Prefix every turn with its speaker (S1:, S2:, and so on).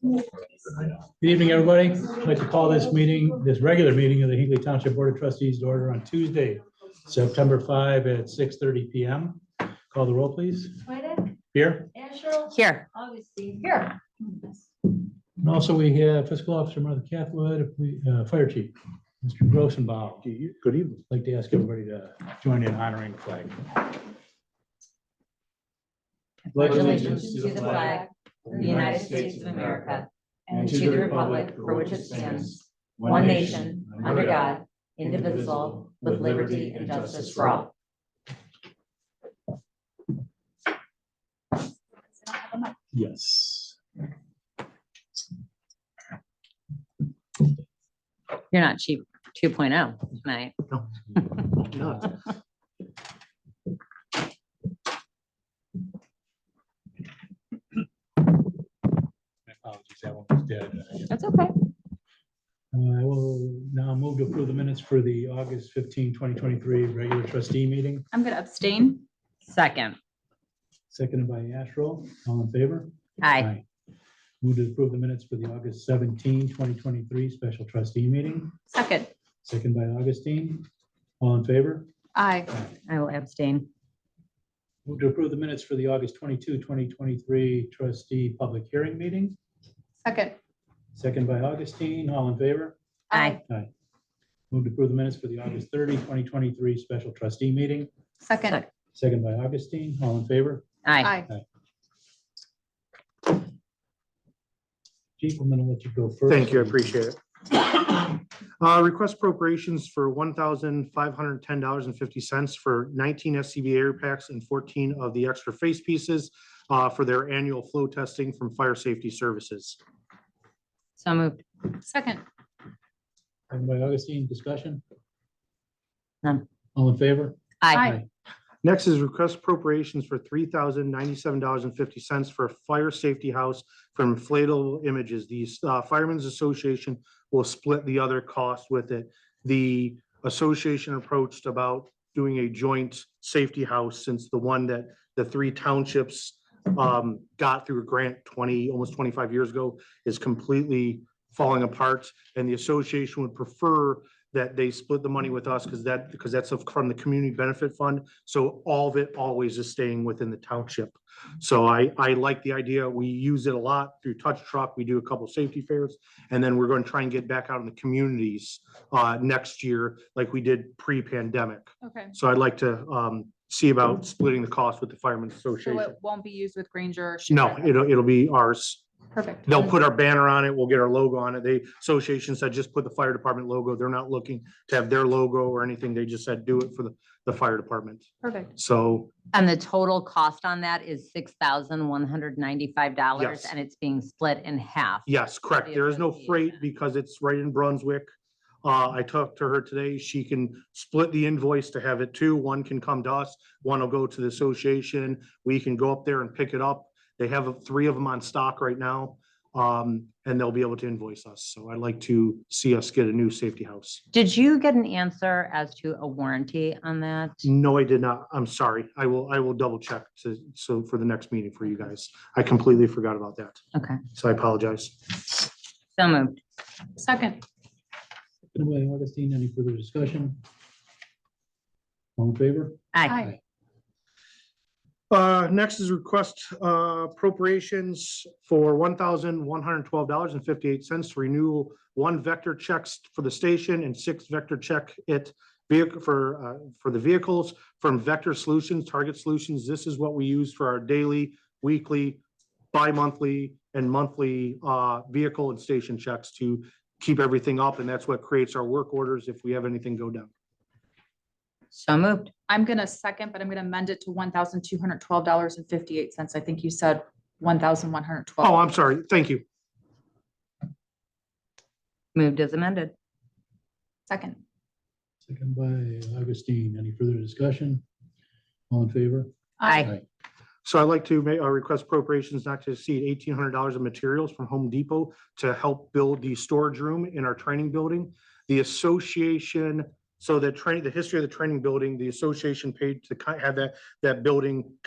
S1: Good evening, everybody. I'd like to call this meeting, this regular meeting of the Hinkley Township Board of Trustees to order on Tuesday, September 5 at 6:30 PM. Call the roll, please.
S2: Swedick,
S1: Here.
S2: Asherle,
S3: Here,
S2: Augustine, here.
S1: And also, we have fiscal officer Martha Cathwood, uh, fire chief, Mr. Grossenbaum. Good evening. Like to ask everybody to join in honoring the flag.
S3: congratulations to the flag of the United States of America and to the republic for which it stands, one nation, under God, indivisible, with liberty and justice for all.
S1: Yes.
S3: You're not cheap 2.0 tonight.
S1: My apologies, that one was dead.
S3: That's okay.
S1: Uh, I will now move to approve the minutes for the August 15, 2023 regular trustee meeting,
S4: I'm gonna abstain.
S3: Second,
S1: seconded by Asherall. All in favor?
S3: aye,
S1: Move to approve the minutes for the August 17, 2023 special trustee meeting,
S4: Second,
S1: seconded by Augustine. All in favor?
S4: aye.
S3: I will abstain.
S1: Move to approve the minutes for the August 22, 2023 trustee public hearing meeting,
S4: Second,
S1: seconded by Augustine. All in favor?
S3: Aye,
S1: Aye. Move to approve the minutes for the August 30, 2023 special trustee meeting,
S4: second,
S1: seconded by Augustine. All in favor?
S3: aye.
S4: aye.
S1: Chief, I'm gonna let you go first.
S5: Thank you, I appreciate it. Uh, Request appropriations for one thousand five hundred ten dollars and fifty cents for nineteen SCBA air packs and fourteen of the extra face pieces uh, for their annual flow testing from Fire Safety Services.
S3: So moved.
S4: Second,
S1: Second by Augustine, discussion?
S3: None.
S1: All in favor?
S3: Aye,
S5: Next is request appropriations for three thousand ninety-seven dollars and fifty cents for a fire safety house from inflatable images. The uh, Firemen's Association will split the other cost with it. The association approached about doing a joint safety house since the one that the three townships um, got through a grant twenty, almost twenty-five years ago is completely falling apart. And the association would prefer that they split the money with us because that, because that's from the Community Benefit Fund. So all of it always is staying within the township. So I, I like the idea. We use it a lot through touch truck. We do a couple safety fairs. And then we're going to try and get back out in the communities uh, next year like we did pre-pandemic.
S4: okay.
S5: So I'd like to um, see about splitting the cost with the Firemen's
S4: So it
S5: Association.
S4: won't be used with Granger. or
S5: No,
S4: Schuster.
S5: it'll, it'll be ours.
S4: Perfect.
S5: They'll put our banner on it. We'll get our logo on it. The association said just put the fire department logo. They're not looking to have their logo or anything. They just said do it for the, the fire department.
S4: Perfect.
S5: So
S3: and the total cost on that is $6,195
S5: Yes.
S3: and it's being split in half.
S5: Yes, correct.
S3: the
S5: There is no freight
S3: association.
S5: because it's right in Brunswick. Uh, I talked to her today. She can split the invoice to have it too. One can come to us, one will go to the association. We can go up there and pick it up. They have uh, three of them on stock right now. Um, and they'll be able to invoice us. So I'd like to see us get a new safety house.
S3: Did you get an answer as to a warranty on that?
S5: No, I did not. I'm sorry. I will, I will double check to, so for the next meeting for you guys. I completely forgot about that.
S3: Okay.
S5: So I apologize.
S3: So moved.
S4: Second,
S1: Seconded by Augustine, any further discussion? All in favor?
S3: Aye,
S4: aye.
S5: Uh, next is request uh, appropriations for one thousand one hundred twelve dollars and fifty-eight cents to renew one vector checks for the station and six vector check it vehicle for, uh, for the vehicles from Vector Solutions, Target Solutions. This is what we use for our daily, weekly, bi-monthly and monthly uh, vehicle and station checks to keep everything up. And that's what creates our work orders if we have anything go down.
S3: so moved.
S4: I'm gonna second, but I'm gonna amend it to one thousand two hundred twelve dollars and fifty-eight cents. I think you said one thousand one hundred twelve.
S5: Oh, I'm sorry. Thank you.
S3: Moved as amended.
S4: Second,
S1: Second by Augustine, any further discussion? All in favor?
S3: Aye.
S5: So I'd like to make a request appropriations not to exceed eighteen hundred dollars of materials from Home Depot to help build the storage room in our training building. The association So the training, the history of the training building, the association paid to kind have that, that building